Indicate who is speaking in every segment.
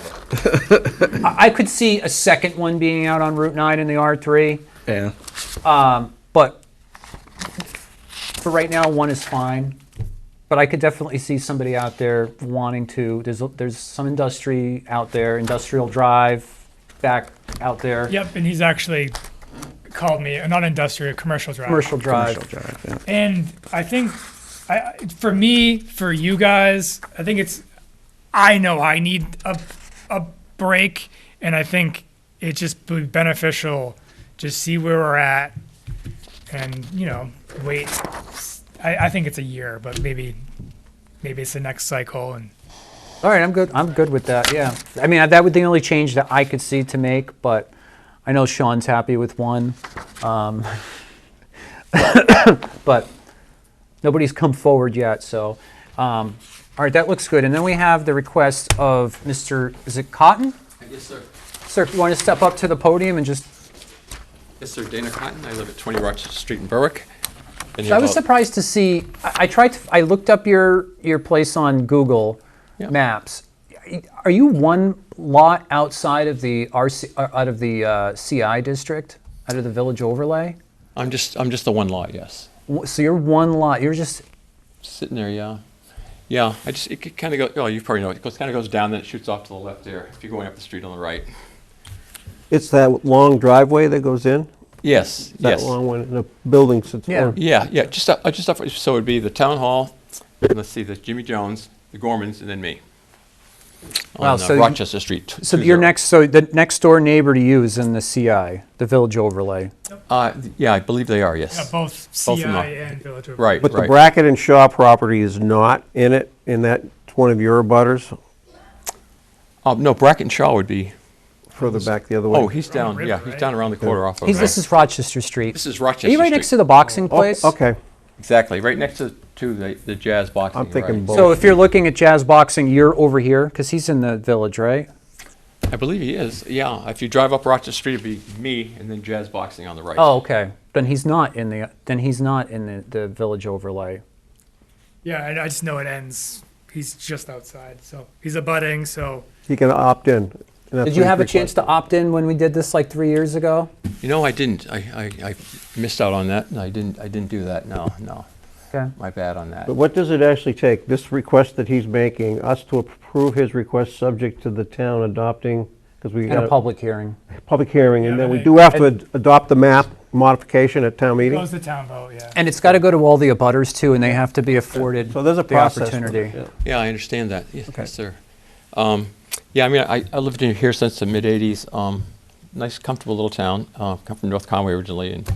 Speaker 1: I I could see a second one being out on Route 9 in the R3,
Speaker 2: Yeah.
Speaker 1: but for right now, one is fine. But I could definitely see somebody out there wanting to. There's there's some industry out there, industrial drive back out there,
Speaker 3: Yep, and he's actually called me not industrial, commercial drive.
Speaker 1: commercial drive.
Speaker 2: Commercial drive. Yeah.
Speaker 3: And I think, I I- for me, for you guys, I think it's. I know I need a a break, and I think it just be beneficial. Just see where we're at, and you know, wait. I, I think it's a year, but maybe, maybe it's the next cycle, and
Speaker 1: All right, I'm good. I'm good with that. Yeah, I mean that would be the only change that I could see to make, but I know Sean's happy with one. Um, but nobody's come forward yet, so um, all right, that looks good. And then we have the request of Mr. Is it Cotton?
Speaker 4: Yes, sir.
Speaker 1: Sir, if you want to step up to the podium and just
Speaker 4: Yes, sir, Dana Cotton, I live at 20 Rochester Street in Berwick. Been here
Speaker 1: I was
Speaker 4: about-
Speaker 1: surprised to see. I, I tried. To, I looked up your your place on Google
Speaker 4: Yeah.
Speaker 1: Maps. Are you one lot outside of the RC uh, out of the uh, CI district, out of the village overlay?
Speaker 4: I'm just, I'm just the one lot, yes.
Speaker 1: W- So you're one lot. You're just
Speaker 4: Sitting there, yeah. Yeah, I just, it kind of go, oh, you probably know, it goes, kind of goes down, then it shoots off to the left there, if you're going up the street on the right.
Speaker 5: It's that long driveway that goes in?
Speaker 4: Yes, yes.
Speaker 5: That long one, the building sits
Speaker 1: Yeah.
Speaker 5: on.
Speaker 4: Yeah, yeah, just up, uh, just up, so it'd be the town hall, and let's see, the Jimmy Jones, the Gormans, and then me.
Speaker 1: Wow,
Speaker 4: On uh,
Speaker 1: so you-
Speaker 4: Rochester Street. t-
Speaker 1: so
Speaker 4: two
Speaker 1: your
Speaker 4: zero.
Speaker 1: next. So the next door neighbor to you is in the CI, the village overlay.
Speaker 4: Uh, yeah, I believe they are,
Speaker 3: yeah,
Speaker 4: yes.
Speaker 3: both
Speaker 4: of
Speaker 3: CI
Speaker 4: them are.
Speaker 3: and Village. Overlay.
Speaker 4: Right,
Speaker 5: But the
Speaker 4: right.
Speaker 5: Brackett and Shaw property is not in it, in that, it's one of your butters
Speaker 4: Uh, no, Brackett and Shaw would be,
Speaker 5: further back the other way.
Speaker 4: oh, he's
Speaker 3: Around
Speaker 4: down,
Speaker 3: the
Speaker 4: yeah,
Speaker 3: river,
Speaker 4: he's
Speaker 3: right?
Speaker 4: down around the corner off of.
Speaker 1: He's,
Speaker 4: uh,
Speaker 1: this is Rochester Street.
Speaker 4: This is Rochester
Speaker 1: Are you right
Speaker 4: Street.
Speaker 1: next to the boxing place?
Speaker 5: Oh, Okay,
Speaker 4: Exactly, right next to, to the, the jazz boxing.
Speaker 5: I'm thinking
Speaker 4: right.
Speaker 5: both.
Speaker 1: So if you're looking at jazz boxing, you're over here because he's in the village, right?
Speaker 4: I believe he is, yeah. If you drive up Rochester Street, it'd be me and then jazz boxing on the right.
Speaker 1: Oh, okay. Then he's not in the then he's not in the, the village overlay.
Speaker 3: Yeah, I, I just know it ends. He's just outside, so he's abutting. So
Speaker 5: he can opt in. and that's
Speaker 1: Did
Speaker 5: what
Speaker 1: you have a
Speaker 5: he's
Speaker 1: chance to opt in when we did this like three years ago?
Speaker 4: You know, I didn't, I, I, I missed out on that, and I didn't, I didn't do that, no, no.
Speaker 1: Okay.
Speaker 4: My bad on that.
Speaker 5: But what does it actually take, this request that he's making, us to approve his request subject to the town adopting, because we
Speaker 1: In
Speaker 5: got
Speaker 1: a public hearing.
Speaker 5: public hearing, and
Speaker 3: Yeah,
Speaker 5: then we
Speaker 3: they-
Speaker 5: do have to ad- adopt the map modification at town
Speaker 3: it
Speaker 5: meeting?
Speaker 3: goes the town vote. Yeah.
Speaker 1: And it's got to go to all the abutters too, and they have to be afforded
Speaker 5: So there's a
Speaker 1: the
Speaker 5: process. for
Speaker 1: opportunity.
Speaker 5: this, yeah.
Speaker 4: Yeah, I understand that, yes, yes, sir. Um, yeah, I mean, I, I lived in here since the mid-eighties, um, nice, comfortable little town. Uh, come from North Conway originally and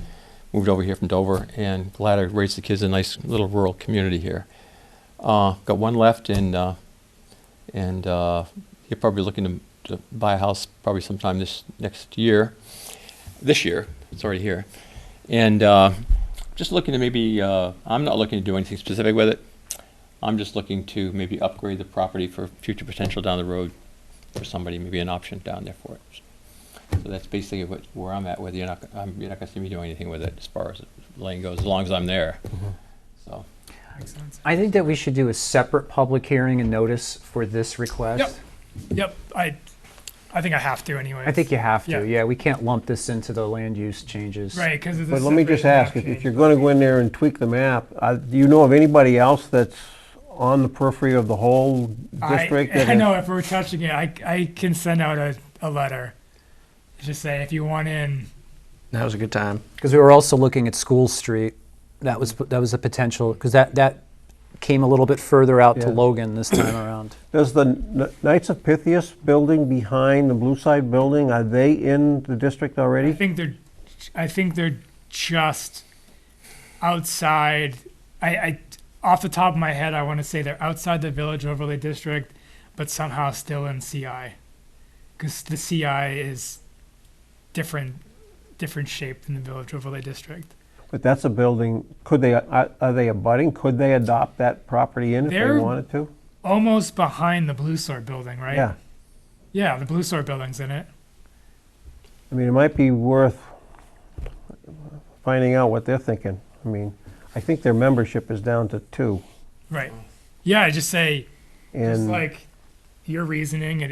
Speaker 4: moved over here from Dover and glad I raised the kids in a nice little rural community here. Uh, got one left and, uh, and, uh, you're probably looking to, to buy a house probably sometime this, next year, this year, it's already here. And, uh, just looking to maybe, uh, I'm not looking to do anything specific with it. I'm just looking to maybe upgrade the property for future potential down the road for somebody, maybe an option down there for it. So that's basically what, where I'm at, whether you're not, I'm, you're not gonna see me doing anything with it as far as lane goes, as long as I'm there. So,
Speaker 3: Makes sense.
Speaker 1: I think that we should do a separate public hearing and notice for this request.
Speaker 3: Yep. Yep. I, I think I have to anyway.
Speaker 1: I think you have to.
Speaker 3: Yeah.
Speaker 1: Yeah. we can't lump this into the land use changes.
Speaker 3: Right, because it's. a
Speaker 5: But let me
Speaker 3: separate
Speaker 5: just ask, if-
Speaker 3: map
Speaker 5: if
Speaker 3: change.
Speaker 5: you're going to go in there and tweak the map, uh, do you know of anybody else that's on the periphery of the whole
Speaker 3: I-
Speaker 5: district? that
Speaker 3: I
Speaker 5: is-
Speaker 3: know, if we're touching it, I, I can send out a, a letter. Just say, if you want in,
Speaker 2: That was a good time.
Speaker 1: Because we were also looking at School Street. That was that was a potential because that that came a little bit further out to
Speaker 5: Yeah.
Speaker 1: Logan this time around.
Speaker 5: Does the Kn- Knights of Pythias building behind the Blue Side building, are they in the district
Speaker 3: I
Speaker 5: already?
Speaker 3: think they're, I think they're just outside. I, I, off the top of my head, I want to say they're outside the village overlay district, but somehow still in CI. Because the CI is different, different shape than the village overlay district.
Speaker 5: But that's a building, could they, are are they abutting? Could they adopt that property in if they
Speaker 3: They're-
Speaker 5: wanted to?
Speaker 3: Almost behind the Blue Sword building, right?
Speaker 5: Yeah.
Speaker 3: Yeah, the Blue Sword building's in it.
Speaker 5: I mean, it might be worth finding out what they're thinking. I mean, I think their membership is down to two.
Speaker 3: Right. Yeah, I just say, just
Speaker 5: and-
Speaker 3: like, your reasoning and